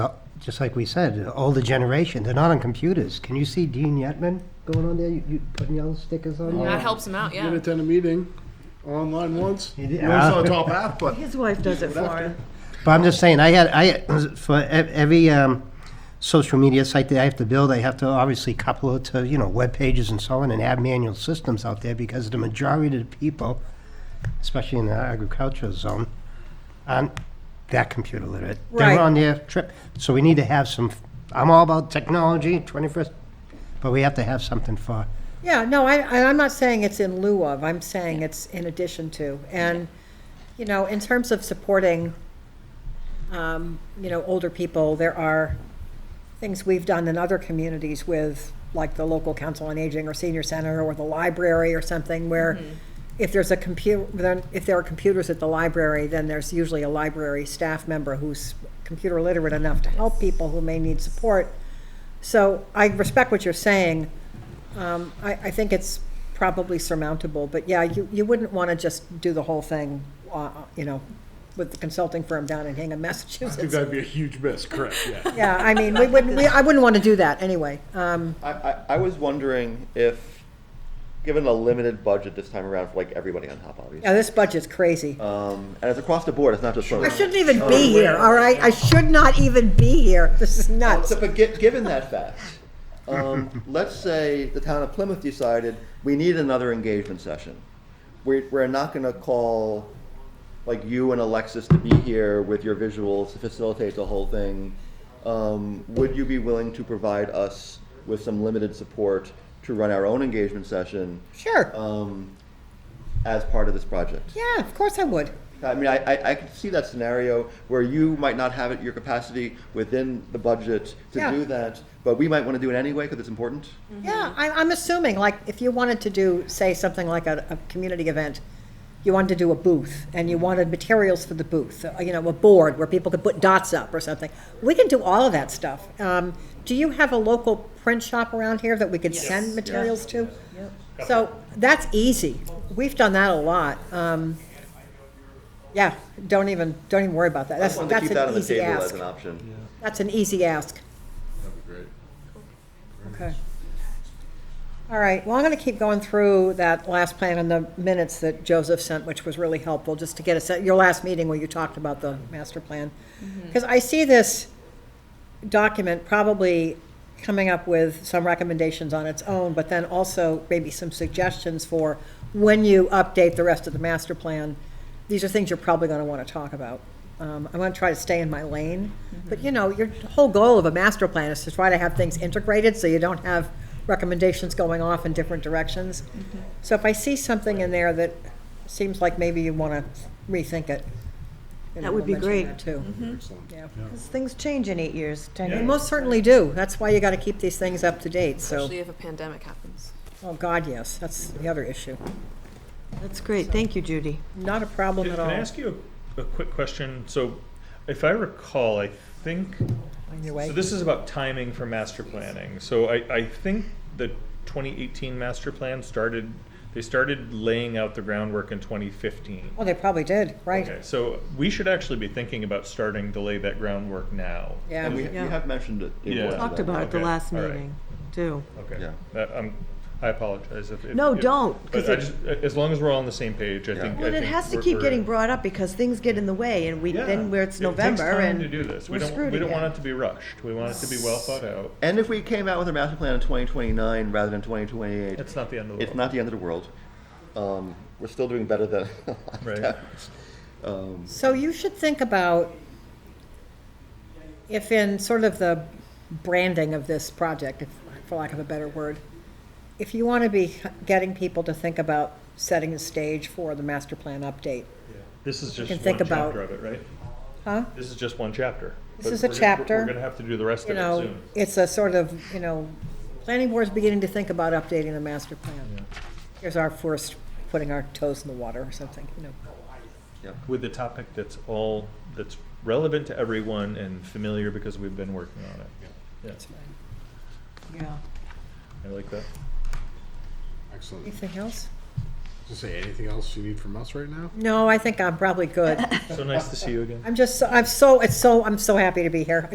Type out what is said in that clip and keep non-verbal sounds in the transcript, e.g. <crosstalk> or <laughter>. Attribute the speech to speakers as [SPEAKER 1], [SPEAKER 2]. [SPEAKER 1] Oh, just like we said, older generation, they're not on computers. Can you see Dean Yetman going on there? You, you putting yellow stickers on there?
[SPEAKER 2] That helps him out,
[SPEAKER 3] Didn't
[SPEAKER 2] yeah.
[SPEAKER 3] attend a meeting online once.
[SPEAKER 1] You did-
[SPEAKER 3] I only saw
[SPEAKER 1] Ah.
[SPEAKER 3] the top half, but
[SPEAKER 4] His wife does it for him.
[SPEAKER 1] But I'm just saying, I had, I, for e- every um, social media site that I have to build, I have to obviously couple it to, you know, web pages and so on, and have manual systems out there, because the majority of the people, especially in the agricultural zone, aren't that computer literate.
[SPEAKER 4] Right.
[SPEAKER 1] They're on their trip, so we need to have some, I'm all about technology, 21st, but we have to have something for,
[SPEAKER 4] Yeah, no, I, I- I'm not saying it's in lieu of, I'm saying it's in addition to. And, you know, in terms of supporting, um, you know, older people, there are things we've done in other communities with, like the local council on aging or senior center or the library or something where if there's a computer, then if there are computers at the library, then there's usually a library staff member who's computer literate enough to help people who may need support. So I respect what you're saying. Um, I, I think it's probably surmountable, but yeah, you, you wouldn't want to just do the whole thing, uh, you know, with the consulting firm down in Hingham,
[SPEAKER 3] I think
[SPEAKER 4] Massachusetts.
[SPEAKER 3] that'd be a huge miss, correct,
[SPEAKER 4] <laughs>
[SPEAKER 3] yeah.
[SPEAKER 4] Yeah, I mean, we wouldn't, we, I wouldn't want to do that anyway. Um,
[SPEAKER 5] I, I, I was wondering if, given a limited budget this time around for like everybody on Hop, obviously,
[SPEAKER 4] yeah, this budget's crazy.
[SPEAKER 5] um, and it's across the board. It's not just
[SPEAKER 4] I
[SPEAKER 5] swimming.
[SPEAKER 4] shouldn't even be here, all right? I should not even be here. This is nuts.
[SPEAKER 5] So, but gi- given that fact,
[SPEAKER 4] <laughs>
[SPEAKER 5] um, let's say the town of Plymouth decided we need another engagement session. We're, we're not going to call like you and Alexis to be here with your visuals to facilitate the whole thing. Um, would you be willing to provide us with some limited support to run our own engagement session
[SPEAKER 4] Sure.
[SPEAKER 5] um, as part of this project?
[SPEAKER 4] Yeah, of course I would.
[SPEAKER 5] I mean, I, I, I could see that scenario where you might not have it, your capacity within the budget to
[SPEAKER 4] Yeah. Mm-hmm.
[SPEAKER 5] do that, but we might want to do it anyway because it's important.
[SPEAKER 4] Yeah, I, I'm assuming, like, if you wanted to do, say, something like a, a community event, you wanted to do a booth, and you wanted materials for the booth, uh, you know, a board where people could put dots up or something. We can do all of that stuff. Um, do you have a local print shop around here that we could send materials to? So, that's easy. We've done that a lot. Um, yeah, don't even, don't even worry about that. That's,
[SPEAKER 5] I wanted to
[SPEAKER 4] that's
[SPEAKER 5] keep that on
[SPEAKER 4] an
[SPEAKER 5] the
[SPEAKER 4] easy
[SPEAKER 5] table as
[SPEAKER 4] ask.
[SPEAKER 5] an option.
[SPEAKER 4] That's an easy ask. That'd be great. Okay. All right, well, I'm gonna keep going through that last plan and the minutes that Joseph sent, which was really helpful, just to get a set, your last meeting where you talked about the master plan. Because I see this document probably coming up with some recommendations on its own, but then also maybe some suggestions for when you update the rest of the master plan. These are things you're probably going to want to talk about. Um, I'm going to try to stay in my lane,
[SPEAKER 6] Mm-hmm.
[SPEAKER 4] but you know, your whole goal of a master plan is to try to have things integrated so you don't have recommendations going off in different directions.
[SPEAKER 6] Mm-hmm.
[SPEAKER 4] So if I see something in there that seems like maybe you want to rethink it. you know,
[SPEAKER 6] That would
[SPEAKER 4] we'll
[SPEAKER 6] be
[SPEAKER 4] mention
[SPEAKER 6] great. Mm-hmm.
[SPEAKER 4] that Too.
[SPEAKER 3] Excellent.
[SPEAKER 4] Yeah.
[SPEAKER 6] Because things change in eight years, ten
[SPEAKER 4] They
[SPEAKER 6] years.
[SPEAKER 4] most certainly do. That's why you got to keep these things up to date, so,
[SPEAKER 2] Especially if a pandemic happens.
[SPEAKER 4] oh, God, yes, that's the other issue.
[SPEAKER 6] That's great, thank you, Judy.
[SPEAKER 4] Not a problem at
[SPEAKER 7] Can I
[SPEAKER 4] all.
[SPEAKER 7] ask you a, a quick question? So, if I recall, I think
[SPEAKER 4] On your
[SPEAKER 7] so.
[SPEAKER 4] way.
[SPEAKER 7] This is about timing for master planning. So, I, I think the 2018 master plan started. They started laying out the groundwork in 2015.
[SPEAKER 4] Oh, they probably did,
[SPEAKER 7] Okay,
[SPEAKER 4] right.
[SPEAKER 7] so we should actually be thinking about starting to lay that groundwork now.
[SPEAKER 5] And we,
[SPEAKER 4] Yeah,
[SPEAKER 5] we
[SPEAKER 6] Yeah.
[SPEAKER 5] have mentioned it. the
[SPEAKER 7] Yeah.
[SPEAKER 5] importance of
[SPEAKER 6] Talked
[SPEAKER 5] that.
[SPEAKER 6] about it the
[SPEAKER 7] Okay,
[SPEAKER 6] last
[SPEAKER 7] all right.
[SPEAKER 6] meeting, too.
[SPEAKER 7] Okay.
[SPEAKER 5] Yeah.
[SPEAKER 7] That, um, I apologize if. if-
[SPEAKER 6] No,
[SPEAKER 7] if-
[SPEAKER 6] don't, 'cause
[SPEAKER 7] But I
[SPEAKER 6] it-
[SPEAKER 7] just, as long as we're all on the same page, I think. I
[SPEAKER 6] But it
[SPEAKER 7] think
[SPEAKER 6] has to
[SPEAKER 7] we're-
[SPEAKER 6] keep
[SPEAKER 7] we're-
[SPEAKER 6] getting brought up because things get in the way and we,
[SPEAKER 7] Yeah.
[SPEAKER 6] then where it's November
[SPEAKER 7] It takes time to do
[SPEAKER 6] and
[SPEAKER 7] this. We
[SPEAKER 6] we're
[SPEAKER 7] don't,
[SPEAKER 6] screwed
[SPEAKER 7] we don't want it
[SPEAKER 6] again.
[SPEAKER 7] to be rushed. We want it to be well thought out.
[SPEAKER 5] And if we came out with a master plan in 2029 rather than 2028,
[SPEAKER 7] It's not the end of the
[SPEAKER 5] it's
[SPEAKER 7] world.
[SPEAKER 5] not the end of the world. Um, we're still doing better than. <laughs>
[SPEAKER 7] Right.
[SPEAKER 5] Um,
[SPEAKER 4] So you should think about if in sort of the branding of this project, if- for lack of a better word, if you want to be getting people to think about setting the stage for the master plan update,
[SPEAKER 7] This is just
[SPEAKER 4] can
[SPEAKER 7] one
[SPEAKER 4] think about-
[SPEAKER 7] chapter of it, right?
[SPEAKER 4] huh?
[SPEAKER 7] This is just one chapter.
[SPEAKER 4] This
[SPEAKER 7] But
[SPEAKER 4] is a
[SPEAKER 7] we're gonna-
[SPEAKER 4] chapter.
[SPEAKER 7] We're gonna have to do the rest
[SPEAKER 4] you
[SPEAKER 7] of it
[SPEAKER 4] know,
[SPEAKER 7] soon.
[SPEAKER 4] it's a sort of, you know, planning board's beginning to think about updating the master plan. Here's our first, putting our toes in the water or something, you know.
[SPEAKER 7] With the topic that's all, that's relevant to everyone and familiar because we've been working on it. Yeah,
[SPEAKER 6] Yeah.
[SPEAKER 7] I like that.
[SPEAKER 3] Excellent.
[SPEAKER 4] Anything else?
[SPEAKER 3] To say anything else you need from us right now?
[SPEAKER 4] No, I think I'm probably good.
[SPEAKER 7] So nice to see you again.
[SPEAKER 4] I'm just, so- I'm so, it's so, I'm so happy to be here.